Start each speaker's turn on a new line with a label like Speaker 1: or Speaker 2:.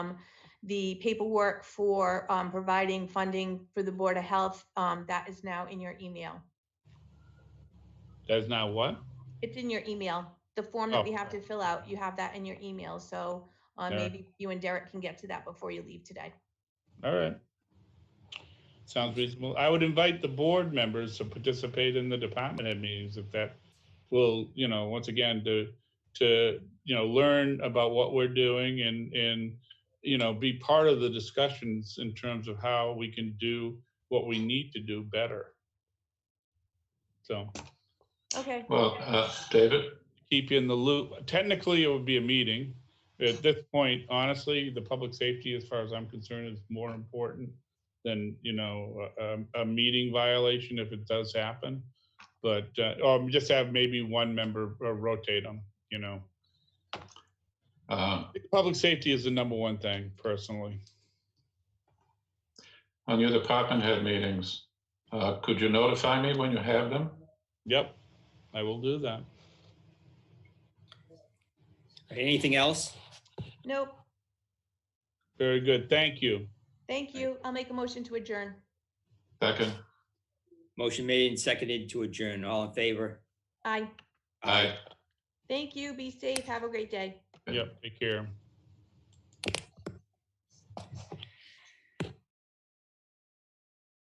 Speaker 1: the paperwork for um, providing funding for the Board of Health. um, That is now in your email.
Speaker 2: That's not what?
Speaker 1: It's in your email, the form that we have
Speaker 2: Oh.
Speaker 1: to fill out. You have that in your email. So uh,
Speaker 2: Yeah.
Speaker 1: maybe you and Derek can get to that before you leave today.
Speaker 2: All right. Sounds reasonable. I would invite the board members to participate in the department head meetings if that will, you know, once again, to, to, you know, learn about what we're doing and, and, you know, be part of the discussions in terms of how we can do what we need to do better. So
Speaker 1: Okay.
Speaker 3: Well, uh, David,
Speaker 2: keep you in the loop. Technically, it would be a meeting. At this point, honestly, the public safety, as far as I'm concerned, is more important than, you know, a, a- a meeting violation if it does happen. But, uh, or just have maybe one member uh, rotate them, you know.
Speaker 3: uh,
Speaker 2: Public safety is the number one thing personally.
Speaker 3: on your department head meetings, uh, could you notify me when you have them?
Speaker 2: Yep, I will do that.
Speaker 4: Anything else?
Speaker 1: Nope.
Speaker 2: Very good. Thank you.
Speaker 1: Thank you. I'll make a motion to adjourn.
Speaker 3: Second,
Speaker 4: Motion made and seconded to adjourn. All in favor?
Speaker 1: Aye.
Speaker 3: aye.
Speaker 1: Thank you. Be safe. Have a great day.
Speaker 2: Yep, take care.